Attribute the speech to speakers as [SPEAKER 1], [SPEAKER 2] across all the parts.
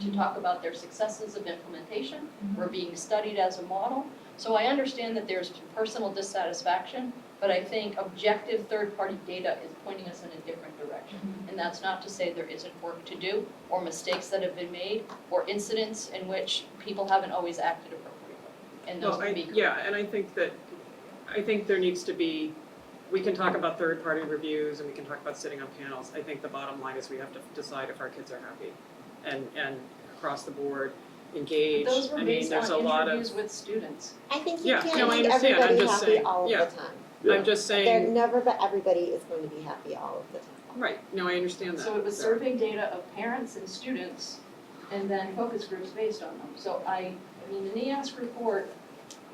[SPEAKER 1] to talk about their successes of implementation.
[SPEAKER 2] Mm-hmm.
[SPEAKER 1] We're being studied as a model. So I understand that there's personal dissatisfaction, but I think objective third-party data is pointing us in a different direction.
[SPEAKER 2] Mm-hmm.
[SPEAKER 1] And that's not to say there isn't work to do, or mistakes that have been made, or incidents in which people haven't always acted appropriately. And those
[SPEAKER 2] Well, I,
[SPEAKER 1] can be
[SPEAKER 2] yeah, and I think that, I think there needs to be, we can talk about third-party reviews and we can talk about sitting on panels. I think the bottom line is we have to decide if our kids are happy and, and across the board, engaged.
[SPEAKER 1] Those were
[SPEAKER 2] I mean,
[SPEAKER 1] based
[SPEAKER 2] there's a
[SPEAKER 1] on
[SPEAKER 2] lot
[SPEAKER 1] interviews
[SPEAKER 2] of,
[SPEAKER 1] with students.
[SPEAKER 3] I think you
[SPEAKER 2] Yeah,
[SPEAKER 3] can't
[SPEAKER 2] no, I
[SPEAKER 3] make
[SPEAKER 2] understand. I'm
[SPEAKER 3] everybody
[SPEAKER 2] just
[SPEAKER 3] happy
[SPEAKER 2] saying-
[SPEAKER 3] all of
[SPEAKER 2] yeah.
[SPEAKER 3] the time.
[SPEAKER 4] Yeah.
[SPEAKER 2] I'm just
[SPEAKER 3] They're
[SPEAKER 2] saying,
[SPEAKER 3] never, but everybody is going to be happy all of the time.
[SPEAKER 2] right, no, I understand that.
[SPEAKER 1] So it was
[SPEAKER 2] So-
[SPEAKER 1] survey data of parents and students and then focus groups based on them. So I, I mean, the NEAS report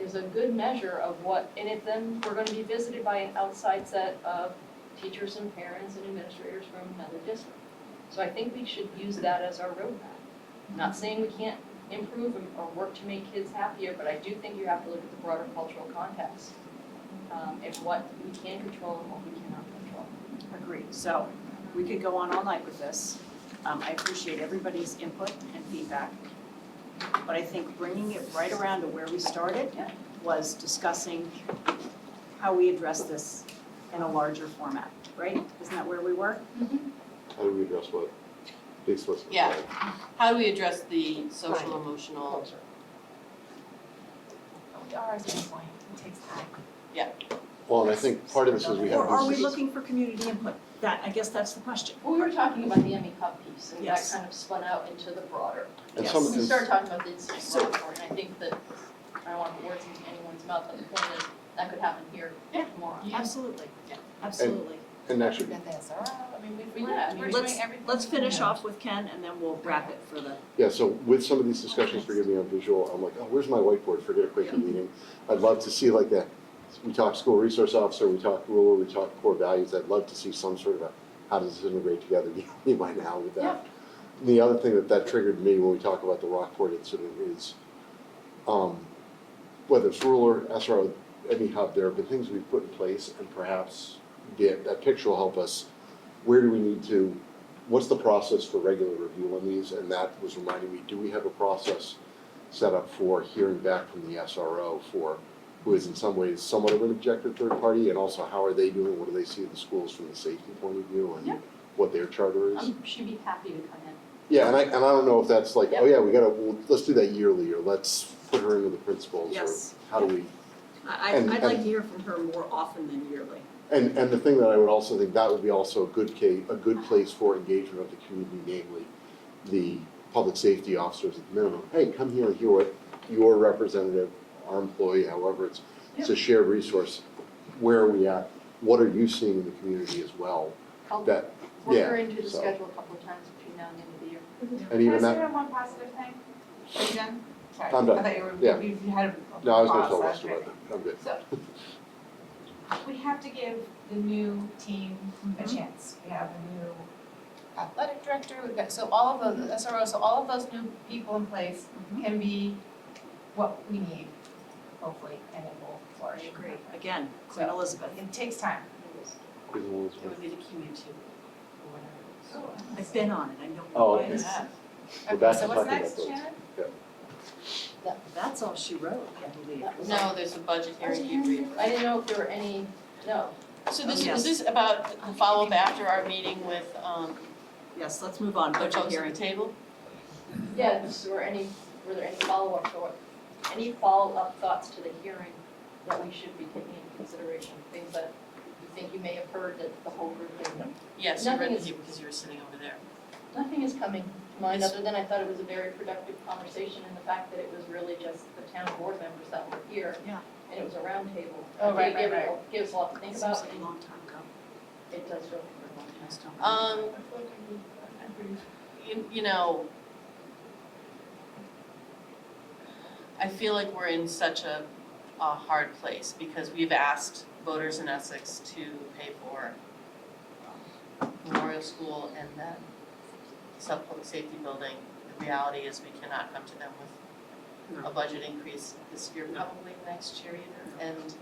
[SPEAKER 1] is a good measure of what, and it then, we're gonna be visited by an outside set of teachers and parents and administrators from another district. So I think we should use that as our roadmap. Not saying we can't improve and- or work to make kids happier, but I do think you have to look at the broader cultural context. Um, and what we can control and what we cannot control.
[SPEAKER 5] Agreed, so we could go on all night with this. Um, I appreciate everybody's input and feedback. But I think bringing it right around to where we started
[SPEAKER 1] Yeah.
[SPEAKER 5] was discussing how we address this in a larger format, right? Isn't that where we were?
[SPEAKER 4] How do we address what? The explicit.
[SPEAKER 6] Yeah.
[SPEAKER 4] side.
[SPEAKER 6] How do we address the social emotional,
[SPEAKER 3] Culture.
[SPEAKER 7] We are at this point, it takes time.
[SPEAKER 4] Well, and I think part of this is we
[SPEAKER 5] Or
[SPEAKER 4] have
[SPEAKER 5] are we
[SPEAKER 4] these,
[SPEAKER 5] looking for community input? That, I guess that's the question.
[SPEAKER 1] Well, we were talking about the Emmy Cup piece, and that
[SPEAKER 5] Yes.
[SPEAKER 1] kind of spun out into the broader.
[SPEAKER 4] and some of
[SPEAKER 1] We
[SPEAKER 4] this,
[SPEAKER 1] started talking about the incident
[SPEAKER 5] So-
[SPEAKER 1] report, and I think that, I don't want to put words into anyone's mouth, but the point is, that could happen here tomorrow.
[SPEAKER 5] Absolutely,
[SPEAKER 6] Yeah.
[SPEAKER 5] absolutely.
[SPEAKER 4] and
[SPEAKER 7] We
[SPEAKER 4] actually,
[SPEAKER 7] got this, all right.
[SPEAKER 6] I mean, we,
[SPEAKER 1] Well, yeah, I mean-
[SPEAKER 6] we're
[SPEAKER 5] Let's-
[SPEAKER 6] doing everything.
[SPEAKER 5] Let's
[SPEAKER 6] we can.
[SPEAKER 5] finish off with Ken and then we'll wrap it for the
[SPEAKER 4] yeah, so with some of these discussions, forgive me, I'm visual, I'm like, oh, where's my whiteboard? Forget a quick meeting. I'd love to see like that, we talk school resource officer, we talk ruler, we talk core values, I'd love to see some sort of a, how does this integrate together, by now with that. The other thing that that triggered me when we talk about the Rockport incident is, um, whether it's ruler, SRO, any hub, there have been things we've put in place and perhaps that, that picture will help us. Where do we need to, what's the process for regular review on these? And that was reminding me, do we have a process set up for hearing back from the SRO for, who is in some ways somewhat of an objective third party? And also, how are they doing? What do they see in the schools from the safety point of view
[SPEAKER 1] Yeah.
[SPEAKER 4] and what their charter is?
[SPEAKER 1] Um, she'd be happy to come in.
[SPEAKER 4] Yeah, and I, and I don't know if that's like, oh
[SPEAKER 1] Yep.
[SPEAKER 4] yeah, we gotta, well, let's do that yearly, or let's put her into the principals, or
[SPEAKER 5] Yes.
[SPEAKER 4] how do we?
[SPEAKER 5] I, I'd-
[SPEAKER 4] And-
[SPEAKER 5] I'd like to
[SPEAKER 4] and-
[SPEAKER 5] hear from her more often than yearly.
[SPEAKER 4] And, and the thing that I would also think, that would be also a good case, a good place for engagement of the community, namely the public safety officers at the minimum, hey, come here and hear what your representative, our employee, however, it's, it's a shared resource. Where are we at? What are you seeing in the community as well?
[SPEAKER 1] Help
[SPEAKER 4] That,
[SPEAKER 1] work her
[SPEAKER 4] yeah,
[SPEAKER 1] into the
[SPEAKER 4] so-
[SPEAKER 1] schedule a couple of times between now and the end of the year.
[SPEAKER 4] and even that,
[SPEAKER 7] Can I say one positive thing? Are you done? Sorry.
[SPEAKER 4] I'm done.
[SPEAKER 7] I thought you were,
[SPEAKER 4] Yeah.
[SPEAKER 7] you you had a.
[SPEAKER 4] no, I was gonna
[SPEAKER 7] pause
[SPEAKER 4] tell
[SPEAKER 7] last
[SPEAKER 4] Lester about
[SPEAKER 7] minute.
[SPEAKER 4] that, I'm good.
[SPEAKER 7] We have to give the new team
[SPEAKER 5] Mm-hmm.
[SPEAKER 7] a chance. We have a new athletic director, we've got, so all of those, SRO, so all of those new people in place can be what we need, hopefully, and it will flourish.
[SPEAKER 5] Great. Again, Queen
[SPEAKER 7] So-
[SPEAKER 5] Elizabeth.
[SPEAKER 7] It takes time.
[SPEAKER 6] It would be the community, or whatever.
[SPEAKER 5] I've been on it, I know
[SPEAKER 4] Oh,
[SPEAKER 5] why
[SPEAKER 4] okay.
[SPEAKER 5] it's-
[SPEAKER 4] We're
[SPEAKER 7] Okay,
[SPEAKER 4] back
[SPEAKER 7] so
[SPEAKER 4] to talking
[SPEAKER 7] what's
[SPEAKER 4] about
[SPEAKER 7] next,
[SPEAKER 4] those.
[SPEAKER 7] Shannon?
[SPEAKER 5] That's all she wrote, I believe.
[SPEAKER 6] No, there's a budget hearing you read.
[SPEAKER 1] I didn't know if there were any, no,
[SPEAKER 6] So this,
[SPEAKER 5] Yes.
[SPEAKER 6] is this about the follow-up after our meeting with, um,
[SPEAKER 5] Yes, let's move on,
[SPEAKER 6] the
[SPEAKER 5] budget
[SPEAKER 6] folks at
[SPEAKER 5] hearing.
[SPEAKER 6] the table?
[SPEAKER 1] yeah, just were any, were there any follow-up or, any follow-up thoughts to the hearing that we should be taking into consideration? Things that you think you may have heard that the whole group didn't know?
[SPEAKER 6] Yes, you read
[SPEAKER 1] Nothing
[SPEAKER 6] the
[SPEAKER 1] is-
[SPEAKER 6] paper because you were sitting over there.
[SPEAKER 1] Nothing is coming to mind,
[SPEAKER 6] It's-
[SPEAKER 1] other than I thought it was a very productive conversation and the fact that it was really just the town board members that were here.
[SPEAKER 5] Yeah.
[SPEAKER 1] And it was a roundtable.
[SPEAKER 7] Oh, right, right,
[SPEAKER 1] Gives a lot to think
[SPEAKER 5] Seems
[SPEAKER 1] about,
[SPEAKER 5] like a long time ago.
[SPEAKER 1] it does feel like a long time.
[SPEAKER 6] Um, you, you know, I feel like we're in such a, a hard place because we've asked voters in Essex to pay for Memorial School and the South Public Safety Building. The reality is we cannot come to them with a budget increase this year,
[SPEAKER 2] No.
[SPEAKER 6] probably next year either. And,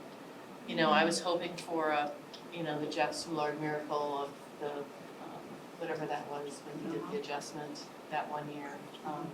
[SPEAKER 6] you know, I was hoping for a, you know, the Jeff Soulard miracle of the, um, whatever that was, when he did the adjustment that one year. Um,